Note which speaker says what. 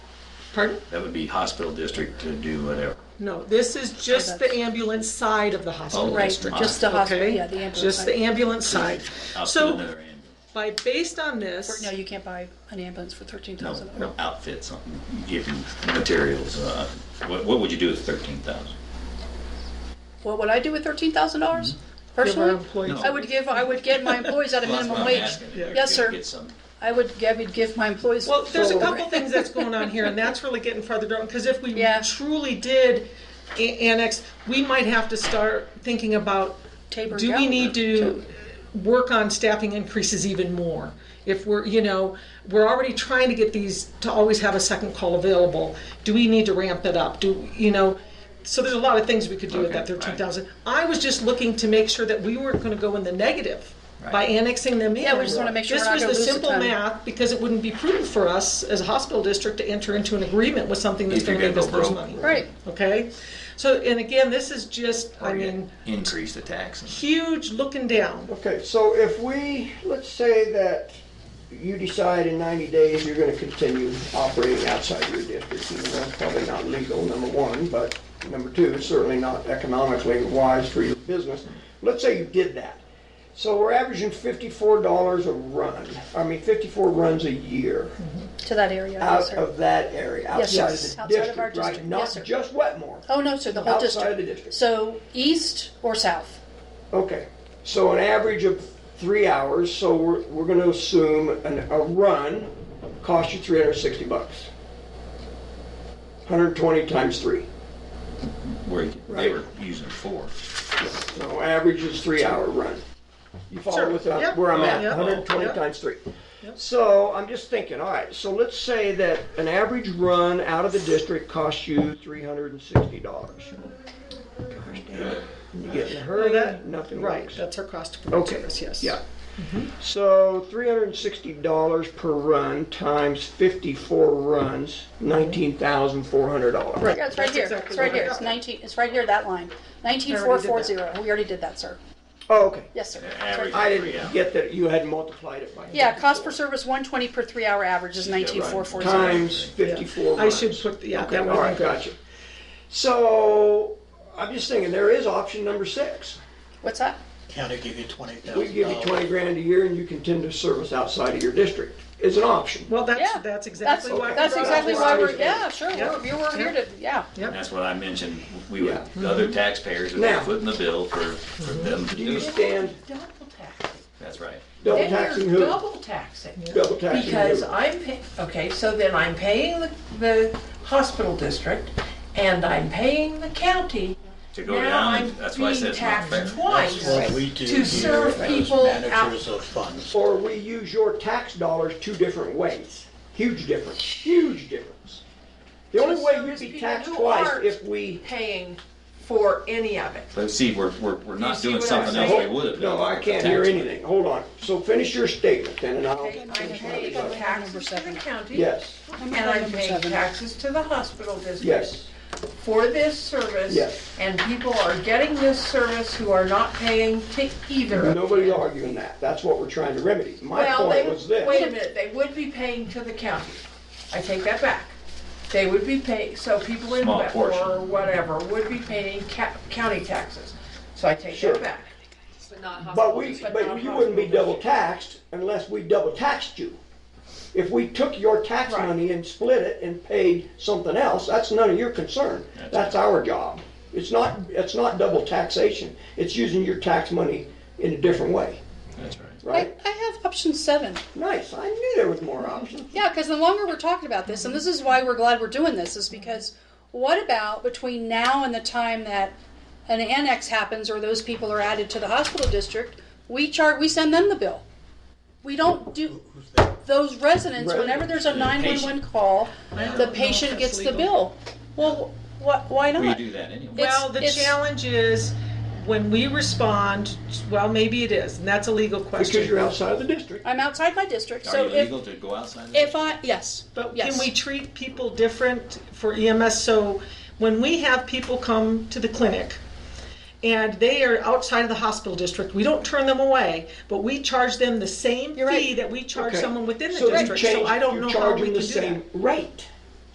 Speaker 1: Pardon?
Speaker 2: That would be hospital district to do whatever.
Speaker 1: No, this is just the ambulance side of the hospital.
Speaker 2: Oh,
Speaker 3: Right,
Speaker 2: district.
Speaker 3: just Oh, the hospital,
Speaker 1: Okay?
Speaker 3: yeah, the ambulance.
Speaker 1: Just the
Speaker 3: side.
Speaker 1: ambulance side.
Speaker 2: Outfit
Speaker 1: So
Speaker 2: another ambulance.
Speaker 1: by, based on
Speaker 3: No,
Speaker 1: this,
Speaker 3: you can't buy an ambulance for thirteen thousand.
Speaker 2: No, no, outfit something, give them materials. uh, What, what would you do with thirteen thousand?
Speaker 3: What would I do with thirteen thousand dollars
Speaker 1: give our
Speaker 3: personally?
Speaker 1: employees.
Speaker 2: Mm-hmm. No.
Speaker 3: I would give, I would get my employees at Oh, a minimum wage. Yes, sir.
Speaker 2: Get some.
Speaker 3: I would, I would give my employees.
Speaker 1: Well, there's a
Speaker 3: full-
Speaker 1: couple things that's going on here, and that's really getting further down, because if we
Speaker 3: Yeah.
Speaker 1: truly did a- annex, we might have to start thinking about,
Speaker 3: Tabor
Speaker 1: do we
Speaker 3: Gallagher,
Speaker 1: need to
Speaker 3: too.
Speaker 1: work on staffing increases even more? If we're, you know, we're already trying to get these, to always have a second call available, do we need to ramp it up? Do, you know, so there's a lot of things we could do with
Speaker 2: Okay,
Speaker 1: that
Speaker 2: right.
Speaker 1: thirteen thousand. I was just looking to make sure that we weren't gonna go in the negative by
Speaker 2: Right.
Speaker 1: annexing them in.
Speaker 3: Yeah, we just wanna make sure
Speaker 1: This
Speaker 3: we're not
Speaker 1: was
Speaker 3: gonna
Speaker 1: the
Speaker 3: lose a
Speaker 1: simple
Speaker 3: ton.
Speaker 1: math, because it wouldn't be prudent for us as a hospital district to enter into an agreement with something that's
Speaker 2: If you're
Speaker 1: gonna make
Speaker 2: gonna
Speaker 1: us
Speaker 2: go
Speaker 1: lose
Speaker 2: broke.
Speaker 1: money.
Speaker 3: Right,
Speaker 1: Okay, so, and again, this is just, I
Speaker 2: Or you
Speaker 1: mean,
Speaker 2: Increase the taxes.
Speaker 1: huge looking down.
Speaker 4: Okay, so if we, let's say that you decide in 90 days you're gonna continue operating outside your district, and that's probably not legal, number one, but number two, it's certainly not economically wise for your business. Let's say you did that. So we're averaging $54 a run, I mean, 54 runs a year
Speaker 3: to that area, Mm-hmm. yes,
Speaker 4: out
Speaker 3: sir.
Speaker 4: of that area,
Speaker 3: Yes,
Speaker 4: outside
Speaker 3: yes,
Speaker 4: of the
Speaker 3: outside of our
Speaker 4: district, right?
Speaker 3: district, yes,
Speaker 4: Not
Speaker 3: sir.
Speaker 4: just Wetmore.
Speaker 3: Oh, no, sir, the whole district.
Speaker 4: Outside of the district.
Speaker 3: So east or south?
Speaker 4: Okay, so an average of three hours, so we're, we're gonna assume an, a run costs you three hundred and sixty bucks. Hundred and twenty times three,
Speaker 2: Where you- they
Speaker 4: Right.
Speaker 2: were using four.
Speaker 4: so average is three hour run. You
Speaker 1: Sure,
Speaker 4: follow with uh,
Speaker 1: yep.
Speaker 4: where I'm at,
Speaker 1: Yep.
Speaker 4: hundred and twenty
Speaker 1: Yep.
Speaker 4: times three. So I'm just thinking, all right, so let's say that an average run out of the district costs you three hundred and sixty dollars. Gosh damn it, you get in a hurry,
Speaker 1: that-
Speaker 4: nothing
Speaker 1: Right,
Speaker 4: works.
Speaker 1: that's our cost of provide
Speaker 4: Okay.
Speaker 1: service, yes. Mm-hmm.
Speaker 4: Yeah. So three hundred and sixty dollars per run times fifty-four runs, nineteen thousand four hundred dollars.
Speaker 3: Yeah, it's right
Speaker 1: That's
Speaker 3: here,
Speaker 1: exactly
Speaker 3: it's right
Speaker 1: what I
Speaker 3: here, it's
Speaker 1: got.
Speaker 3: nineteen, it's right here, that line. Nineteen four four zero, we already did that, sir.
Speaker 4: Oh, okay.
Speaker 3: Yes, sir. It's
Speaker 2: average.
Speaker 3: right here.
Speaker 4: I
Speaker 2: Yeah.
Speaker 4: didn't get that you had multiplied it by.
Speaker 3: Yeah, cost per service one twenty per three hour average is nineteen four four zero.
Speaker 4: Times fifty-four
Speaker 1: I
Speaker 4: runs.
Speaker 1: should put, yeah,
Speaker 4: Okay,
Speaker 1: that
Speaker 4: all
Speaker 1: would
Speaker 4: right,
Speaker 1: be good.
Speaker 4: gotcha. So I'm just thinking, there is option number six.
Speaker 3: What's that?
Speaker 5: County give you twenty
Speaker 4: We
Speaker 5: thousand
Speaker 4: give you
Speaker 5: dollars.
Speaker 4: twenty grand a year and you continue to service outside of your district. It's an option.
Speaker 1: Well, that's,
Speaker 3: Yeah,
Speaker 1: that's exactly why. we
Speaker 3: That's
Speaker 1: brought it
Speaker 3: exactly
Speaker 1: up.
Speaker 3: why
Speaker 4: Hours
Speaker 3: we're,
Speaker 4: of
Speaker 3: yeah,
Speaker 4: work.
Speaker 3: sure,
Speaker 1: Yeah.
Speaker 3: we're, we were here to, yeah.
Speaker 2: And that's what I mentioned, we would,
Speaker 4: Yeah.
Speaker 2: the other taxpayers would be
Speaker 4: Now-
Speaker 2: footing the bill for, for them to
Speaker 4: Do
Speaker 2: do
Speaker 4: you
Speaker 2: it.
Speaker 4: stand
Speaker 6: Double taxing.
Speaker 2: That's right.
Speaker 4: double
Speaker 6: Then you're
Speaker 4: taxing who?
Speaker 6: Double taxing.
Speaker 4: Double taxing who?
Speaker 6: Because I'm, pa- okay, so then I'm paying the, the hospital district and I'm paying the county.
Speaker 2: To go
Speaker 6: Now
Speaker 2: down,
Speaker 6: I'm
Speaker 2: and that's why I
Speaker 6: being
Speaker 2: said it's not fair.
Speaker 6: taxed twice.
Speaker 5: What we do
Speaker 6: To
Speaker 5: here
Speaker 6: serve
Speaker 5: as
Speaker 6: people out-
Speaker 5: Managers of funds.
Speaker 4: or we use your tax dollars two different ways. Huge difference, huge difference. The only way you'd be taxed twice if we,
Speaker 6: Paying for any of it.
Speaker 2: But see, we're, we're, we're not
Speaker 6: see
Speaker 2: doing
Speaker 6: what I'm
Speaker 2: something else we
Speaker 6: saying?
Speaker 2: would have done.
Speaker 4: no, I can't hear anything, hold on. So finish your statement then and I'll,
Speaker 6: I'm paying taxes to the county.
Speaker 4: yes,
Speaker 6: And I'm paying taxes to the hospital district.
Speaker 4: yes,
Speaker 6: for this service.
Speaker 4: Yes.
Speaker 6: And people are getting this service who are not paying to either. of
Speaker 4: nobody's
Speaker 6: them.
Speaker 4: arguing that, that's what we're trying to remedy. My
Speaker 6: Well,
Speaker 4: point
Speaker 6: they-
Speaker 4: was
Speaker 6: Wait a
Speaker 4: this,
Speaker 6: minute, they would be paying to the county. I take that back. They would be paying, so people in
Speaker 2: Small
Speaker 6: Wetmore
Speaker 2: portion.
Speaker 6: or whatever would be paying ca- county taxes. So I take
Speaker 4: Sure.
Speaker 6: that back.
Speaker 4: but we, but you wouldn't be double taxed unless we double taxed you. If we took your tax
Speaker 6: Right.
Speaker 4: money and split it and paid something else, that's none of your concern. That's our job. It's not, it's not double taxation. It's using your tax money in a different way,
Speaker 2: That's right.
Speaker 3: I,
Speaker 4: right?
Speaker 3: I have option seven.
Speaker 4: Nice, I knew there was more options.
Speaker 3: Yeah, because the longer we're talking about this, and this is why we're glad we're doing this, is because what about between now and the time that an annex happens or those people are added to the hospital district, we chart, we send them the bill. We don't do those residents. Whenever there's a nine one one call, the patient gets the bill. Well, wh- why not?
Speaker 2: We do that anyway.
Speaker 3: It's-
Speaker 1: Well, the
Speaker 3: it's-
Speaker 1: challenge is when we respond, well, maybe it is, and that's a legal
Speaker 4: Because you're
Speaker 1: question.
Speaker 4: outside of the district.
Speaker 3: I'm outside my district,
Speaker 2: Are
Speaker 3: so
Speaker 2: you
Speaker 3: if
Speaker 2: legal to go outside of that?
Speaker 3: if I yes,
Speaker 1: But
Speaker 3: yes.
Speaker 1: can we treat people different for EMS? So when we have people come to the clinic and they are outside of the hospital district, we don't turn them away, but we charge them the same
Speaker 3: You're right.
Speaker 1: fee that we charge
Speaker 4: Okay.
Speaker 1: someone within the
Speaker 4: So you
Speaker 1: district. So
Speaker 4: change-
Speaker 1: I don't
Speaker 4: you
Speaker 1: know
Speaker 4: charge
Speaker 1: how we can
Speaker 4: them the
Speaker 1: do that.
Speaker 4: same Rate.